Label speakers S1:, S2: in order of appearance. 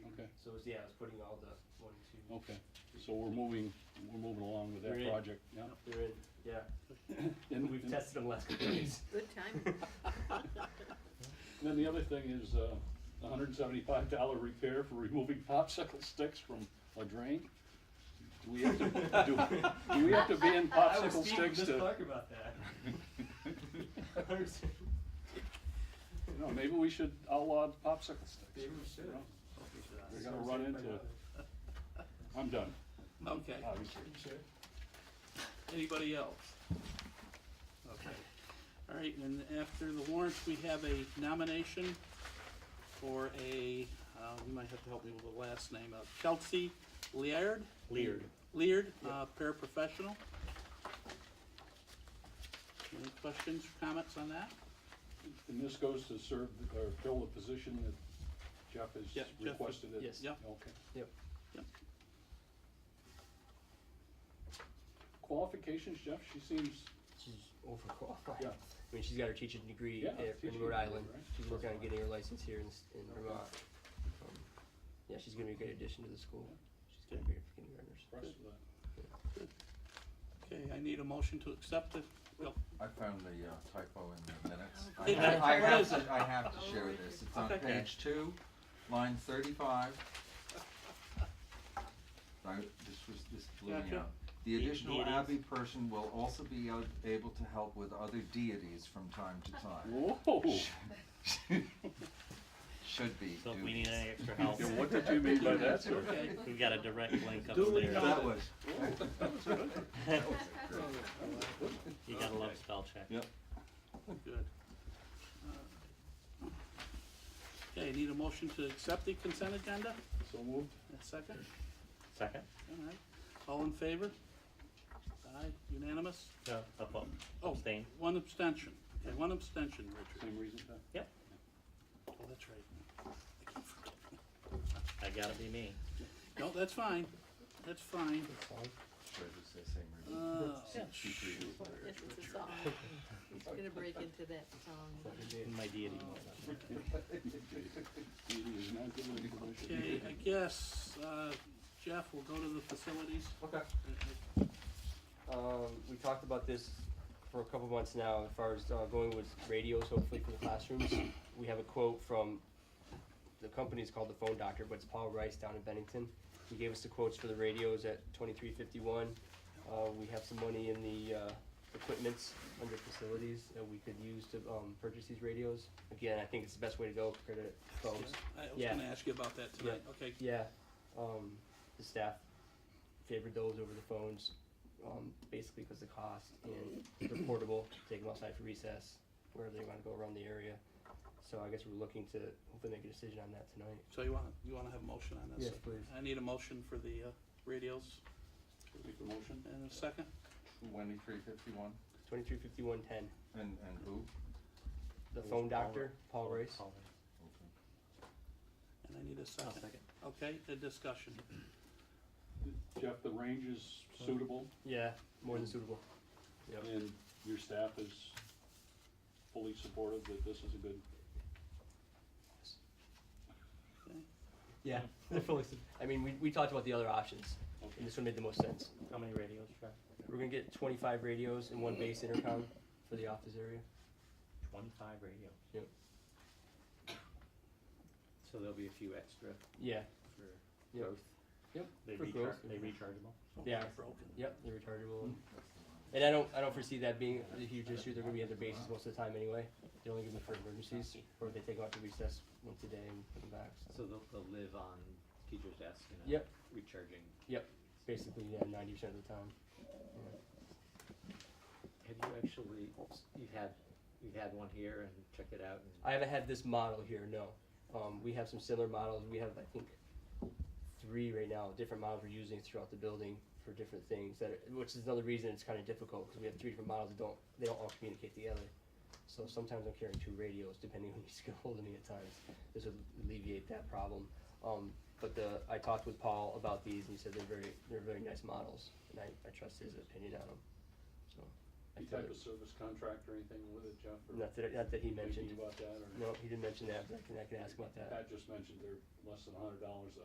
S1: was, yeah, I was putting all the one, two,
S2: Okay, so we're moving, we're moving along with that
S1: Great.
S2: project, yeah.
S1: they're in, yeah.
S2: And
S1: We've
S2: and
S1: tested them last couple of days.
S3: Good time.
S2: Then the other thing is, uh, a hundred and seventy-five dollar repair for removing popsicle sticks from a drain. Do we have to, do, do we have to ban
S1: I was
S2: popsicle
S1: speaking with
S2: sticks
S1: Miss
S2: to,
S1: Clark about that. Maybe
S2: you know, maybe we should outlaw the popsicle sticks.
S1: we should.
S2: No. We're gonna run into it. I'm done,
S4: Okay,
S2: obviously.
S4: anybody else? Okay, all right, and after the warrants, we have a nomination for a, uh, you might have to help me with the last name, uh, Chelsea Leard,
S1: Leered.
S4: Leard, uh, paraprofessional. Any questions, or comments on that?
S2: And this goes to serve, the- or fill the position that Jeff
S4: Yeah,
S2: has
S4: Jeff-
S2: requested it?
S1: yes.
S4: Yeah.
S2: Okay.
S1: Yep.
S4: Yep.
S2: Qualifications, Jeff, she seems,
S1: She's overqualified.
S2: yeah.
S1: I mean, she's got her teaching degree
S2: Yeah,
S1: at- in
S2: teaching
S1: Rhode
S2: degree,
S1: Island.
S2: right.
S1: She's working on getting her license here in, s- in Vermont. Um, Yeah, she's gonna be a great addition to the school. She's gonna be a kindergartners.
S2: impressed with that.
S4: Okay, I need a motion to accept it. Well,
S5: I found the uh, typo in the minutes. I
S4: Did
S5: have-
S4: you?
S5: I
S4: What
S5: have
S4: is
S5: to-
S4: it?
S5: I have to share this. It's on
S4: Okay.
S5: page two, line thirty-five. I, this was, this blew me
S4: Gotcha.
S5: up. The
S4: De-
S5: additional
S4: deities.
S5: abbey person will also be a- able to help with other deities from time to time.
S2: Whoa,
S5: Should be
S6: So if we need
S5: duties.
S6: any extra help,
S2: Yeah, what did you mean by that, sir?
S4: okay,
S6: we've got a direct link
S4: Duly
S6: upstairs.
S5: That was,
S6: You gotta love spell check.
S5: yep.
S4: good. Uh, Okay, need a motion to accept the consent agenda?
S2: so moved.
S4: A second?
S6: Second?
S4: All right. All in favor? Aye, unanimous?
S6: No. Up,
S4: Oh,
S6: abstain.
S4: One abstention. Okay, one abstention, Richard.
S2: Same reason, huh?
S6: Yep,
S4: Oh, that's right.
S6: I gotta be me.
S4: No, that's fine. That's fine.
S5: Should have said same reason.
S4: Uh,
S3: Yes, it's a song. It's gonna break into that song.
S6: In my deity mode.
S2: It is not good with the commission.
S4: Okay, I guess, uh, Jeff, we'll go to the facilities.
S1: Okay. Um, we talked about this for a couple months now, as far as uh, going with radios, hopefully for the classrooms. We have a quote from, the company is called The Phone Doctor, but it's Paul Rice down in Bennington. He gave us the quotes for the radios at twenty-three fifty-one. Uh, we have some money in the, uh, equipments under facilities that we could use to, um, purchase these radios. Again, I think it's the best way to go compared to phones.
S4: I was
S1: Yeah.
S4: gonna ask you about that tonight. Okay,
S1: Yeah, um, the staff favored those over the phones, um, basically because the cost and they're portable, take them outside for recess, wherever they want to go around the area. So I guess we're looking to hopefully make a decision on that tonight.
S4: so you wanna, you wanna have a motion on this?
S1: Yes, please.
S4: I need a motion for the, uh, radios
S2: Make the motion.
S4: in a second.
S5: Twenty-three fifty-one,
S1: Twenty-three fifty-one ten,
S5: and, and who?
S1: the phone doctor, Paul Rice.
S4: And I need a second. Okay, a discussion.
S2: Jeff, the range is suitable
S1: Yeah, more than suitable. Yep.
S2: and your staff is fully supportive that this is a good,
S1: Yeah, they're fully sup- I mean, we, we talked about the other options, and
S2: okay,
S1: this one made the most sense.
S6: How many radios, Jeff?
S1: We're gonna get twenty-five radios and one base intercom for the office area.
S6: Twenty-five radios.
S1: Yep.
S7: So there'll be a few extra
S1: Yeah,
S7: for
S1: yep,
S7: both.
S6: They
S1: For
S6: recharge,
S1: growth.
S6: they rechargeable?
S1: Yeah.
S4: Broken.
S1: yep, they're rechargeable. And I don't, I don't foresee that being a huge issue, they're gonna be at their bases most of the time anyway, they only give them for emergencies, or if they take them out to recess once a day and put them back,
S7: So
S1: so.
S7: they'll, they'll live on teacher's desk and
S1: Yep.
S7: recharging.
S1: Basically, yeah, ninety percent of the time.
S7: Have you actually, you've had, you've had one here and checked it out and
S1: I haven't had this model here, no, um, we have some similar models, we have, I think, three right now, different models we're using throughout the building for different things that, are- which is another reason it's kinda difficult, cause we have three different models that don't, they don't all communicate together. So sometimes I'm carrying two radios, depending on who needs to get hold of me at times, this would alleviate that problem. Um, but the, I talked with Paul about these, and he said they're very, they're very nice models, and I, I trust his opinion on them, so. I
S2: any
S1: feel
S2: type
S1: that-
S2: of service contract or anything with it, Jeff? or
S1: Not that, not that he
S2: thinking
S1: mentioned,
S2: about that or?
S1: no, he didn't mention that, but I can, I can ask about that.
S2: Pat just mentioned they're less than a hundred dollars